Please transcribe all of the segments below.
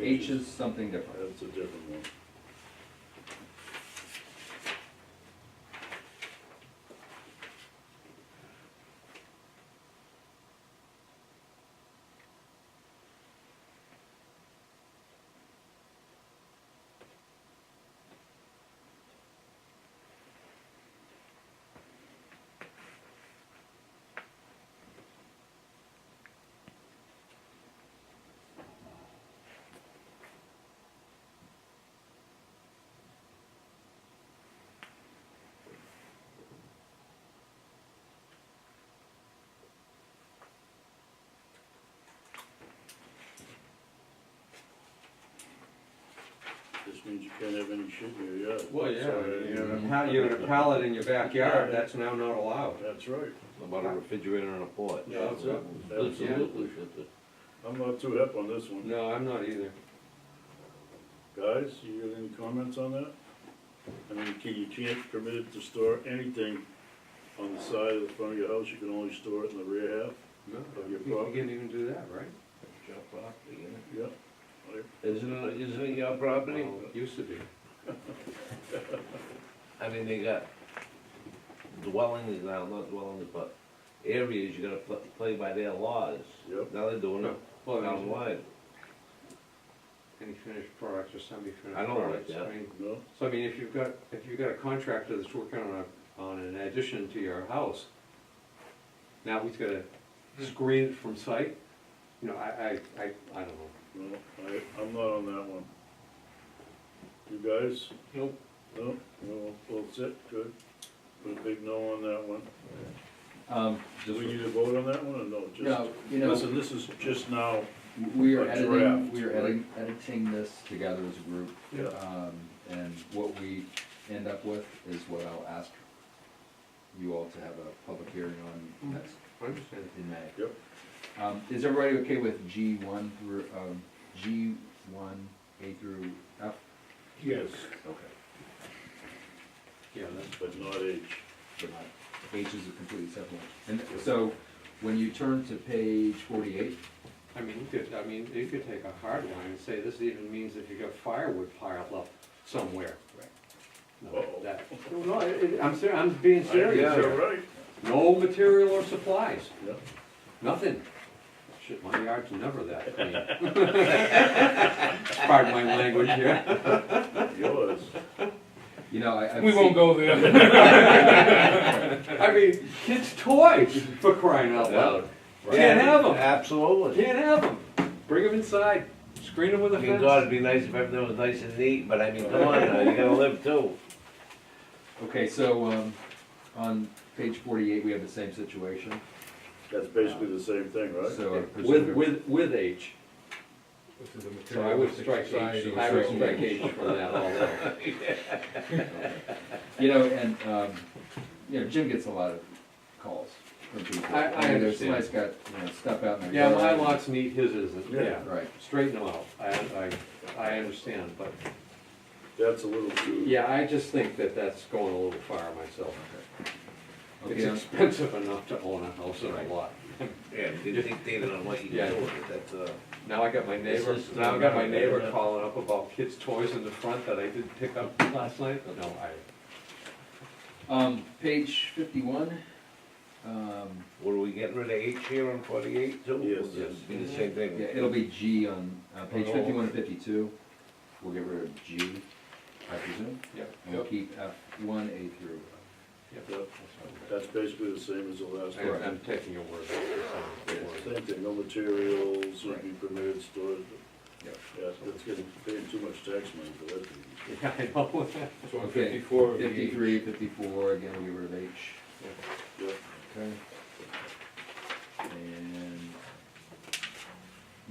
H is something different. That's a different one. This means you can't have any shit in your yard. Well, yeah, Sorry. you have a pallet, you have a pallet in your backyard, Yeah. that's now not allowed. That's right. About a refrigerator and a porch. Yeah, that's it. Absolutely, shit, that- I'm not too hip on this one. No, I'm not either. Guys, you got any comments on that? I mean, can, you can't permit it to store anything on the side of the front of your house, you can only store it in the rear half? No, Of you your you property? can't even do that, right? Your property, isn't Yeah. it? Isn't it, isn't it your property? Well, it Used to be. I mean, they got dwellings now, not dwellings, but areas you gotta pl- play by their laws. Yep. Now they're doing it Well, I mean, townwide. any finished products or semi-finished I don't like products. that. mean, No? So I mean, if you've got, if you've got a contractor that's working on a, on an addition to your house, now he's gotta screen it from sight, you know, I, I, I, I don't know. No, I, I'm not on that one. You guys? Nope. No, no, well, sit, good. Put a big no on that one. Um, Do just, we need to vote on that one or no? Just- no, you know, Listen, this is just now, we are a draft, editing, we are edit- right? editing this together as a group. Yeah. Um, and what we end up with is what I'll ask you all to have a public hearing Mm-hmm. on next, I understand. in May. Yep. Um, is everybody okay with G one through, um, G one, A through F? yes, Okay. Yeah, that's, but not H. but not- H is a completely separate one. And so, when you turn to page forty-eight, I mean, you could, I mean, you could take a hard line and say, this even means if you got firewood piled up somewhere. Right. No, Uh-oh. that, no, it- it- I'm ser, I'm being serious Yeah, here. you're right. No material or supplies, Yeah. nothing. Shit, my yard's never that clean. Pardon my language here. Yours. you know, I, I've We won't seen- go there. I mean, kids' toys, for crying out loud. Can't have them, Absolutely. can't have them. Bring them inside, screen them with a I mean, God, fence. it'd be nice if everything was nice and neat, but I mean, come on now, you gotta live too. Okay, so, um, on page forty-eight, we have the same situation, That's basically the same thing, right? so. I With, presume- with, with H. So I would strike H, I would so- strike H from that although. You know, and, um, you know, Jim gets a lot of calls from people. I- I mean, there's understand. Somebody's got, you know, stuff out in their Yeah, yard. my lot's neat, his isn't, Yeah. yeah. Right, Straighten them out, I, I, I understand, but, That's a little too. yeah, I just think that that's going a little far myself. It's okay, on- expensive enough to own a house and Right. a lot. Yeah, you dictated on what you Yeah. can do with it, that's, uh. Now I got my neighbor, This is- now I got my neighbor calling up about kids' toys in the front that I didn't pick up last night, no, I, um, page fifty-one, um, Were we getting rid of H here on forty-eight too? Yes. Yes. Be the same thing. Yeah, it'll be G on, uh, page Oh. fifty-one and fifty-two, we'll get rid of G, I presume, yep, and we'll keep F one, A through. uh, Yep, That's basically the same as the last I- one. I'm taking your word. for it. Same thing, no materials, would be permitted, stored. Yep. Yeah, that's getting paid too much tax money for that. thing. Yeah, I know. So on Okay. fifty-four, the- Fifty-three, fifty-four, again, we were of H, Yep, okay? And,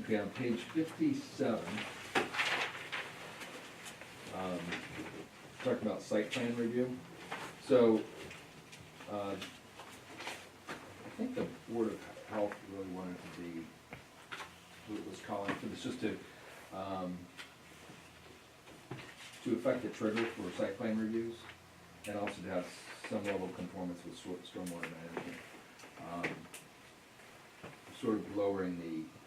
okay, on page fifty-seven, um, talking about site plan review, so, uh, I think the Board of Health really wanted to be, what was calling for this, just to, um, to affect the trigger for site plan reviews, and also to have some level of conformance with stor- stormwater management. Um, Sort of lowering the